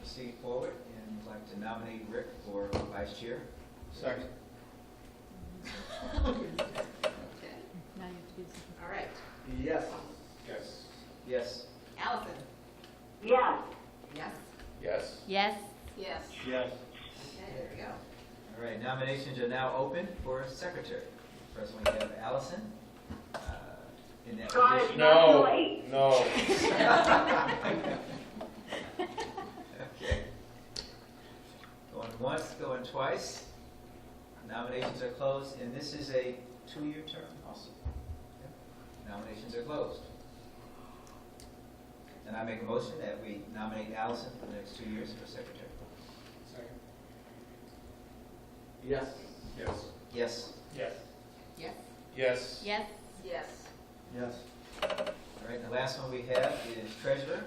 proceed forward and would like to nominate Rick for vice chair. Second. Okay, Now you have to do something. all right. Yes. Yes. Yes. Allison? yes, Yes? Yes. Yes, Yes. Yes. Okay, there we go. All right, nominations are now open for secretary. First we have Allison. uh, In that Got it. position. No, Wait. no. Okay. Going once, going twice. Nominations are closed, and this is a two-year term also. Yep. Nominations are closed. And I make a motion that we nominate Allison for the next two years for secretary. Second. Yes. Yes. Yes. Yes. Yes? Yes. yes, Yes. Yes. All right, the last one we have is treasurer.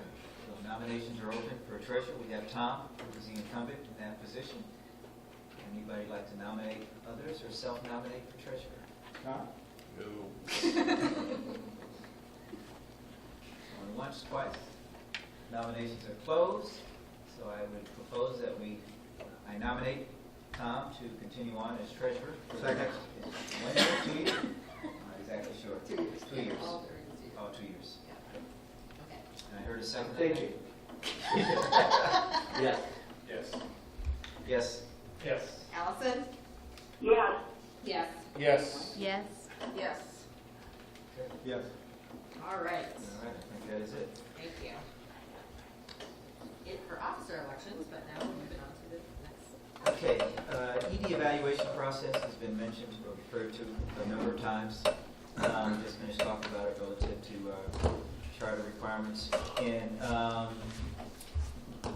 So Nominations are open for treasurer. We have Tom, who is the incumbent in that position. Anybody like to nominate others or self-nominate for treasurer? Tom? No. Going once, twice. Nominations are closed, so I would propose that we, uh, I nominate Tom to continue on as treasurer. for the Second. next- One year, two years? I'm Not exactly sure. Two years. Two years. All there is is- Oh, two years. Okay. And I heard a second. Thank you. Yes. Yes. Yes. Yes. Allison? yes, Yes. Yes. yes. Yes. Yes. All All right, right, I think that is it. thank you. It for officer elections, but now we're moving on to the next. Okay, uh, ED evaluation process has been mentioned or referred to a number of times. Um, Just finished talking about it relative to uh, charter requirements. And um,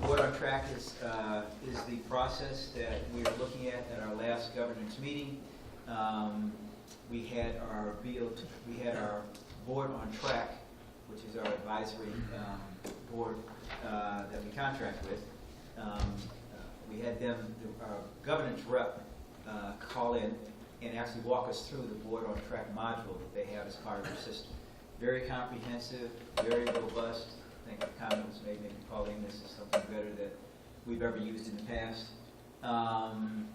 what our track is, uh, is the process that we are looking at at our last governance meeting. Um, We had our BOT, we had our board on track, which is our advisory um, board uh, that we contract with. Um, uh, We had them, the- our governance rep, uh, call in and actually walk us through the board on track module that they have as part of their system. Very comprehensive, very robust. I think the comment was made, maybe Pauline, this is something better that we've ever used in the past. Um,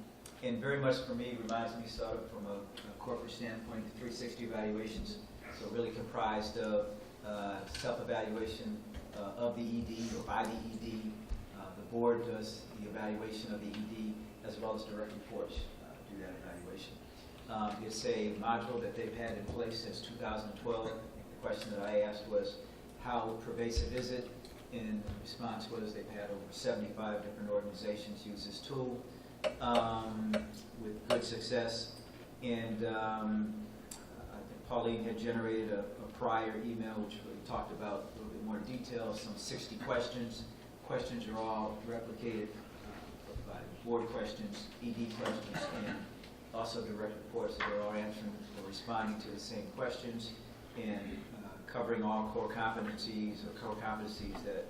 And very much for me, reminds me sort of from a a corporate standpoint, the 360 evaluations. So really comprised of uh, self-evaluation uh, of the ED or by the ED. Uh, The board does the evaluation of the ED as well as direct reports uh, do that evaluation. Um, It's a module that they've had in place since 2012. I think The question that I asked was, how pervasive is it? And the response was, they've had over 75 different organizations use this tool um, with good success. And um, I think Pauline had generated a a prior email which we talked about a little bit more detail, some 60 questions. Questions are all replicated uh, by board questions, ED questions, and also direct reports that are all answering or responding to the same questions and uh, covering all core competencies or core competencies that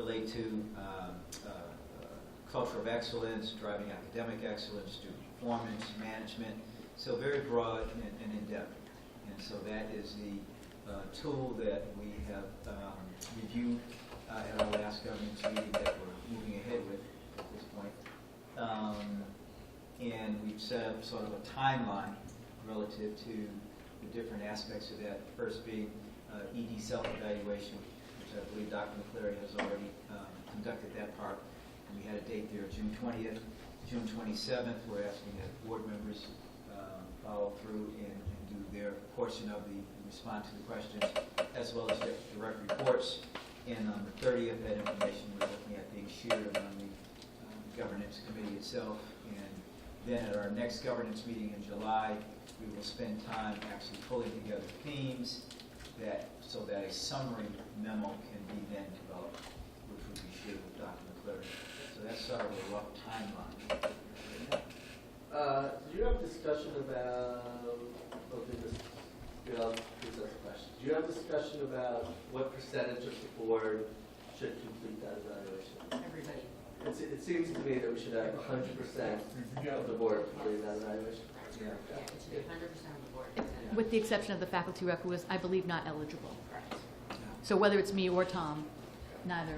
relate to um, uh, uh, culture of excellence, driving academic excellence, student performance, management. So very broad and- and in-depth. And so that is the uh, tool that we have um, reviewed uh, at our last governance meeting that we're moving ahead with at this point. Um, And we've set up sort of a timeline relative to the different aspects of that, first being uh, ED self-evaluation, which I believe Dr. McCleary has already um, conducted that part. And we had a date there, June 20th, June 27th, we're asking that board members um, follow through and and do their portion of the, respond to the questions, as well as their direct reports. And on the 30th, that information we're looking at being shared on the um, governance committee itself. And then at our next governance meeting in July, we will spend time actually pulling together themes that, so that a summary memo can be then developed, which will be shared with Dr. McClure. So that's sort of a rough timeline. Uh, do you have discussion about, okay, this, yeah, I'll present the question. Do you have discussion about what percentage of the board should complete that evaluation? Everybody. It, se- it seems to me that we should have hundred percent of the board complete that evaluation. Yeah. Yeah, it should be hundred percent of the board. With the exception of the faculty rep, who is, I believe, not eligible. Correct. So whether it's me or Tom, neither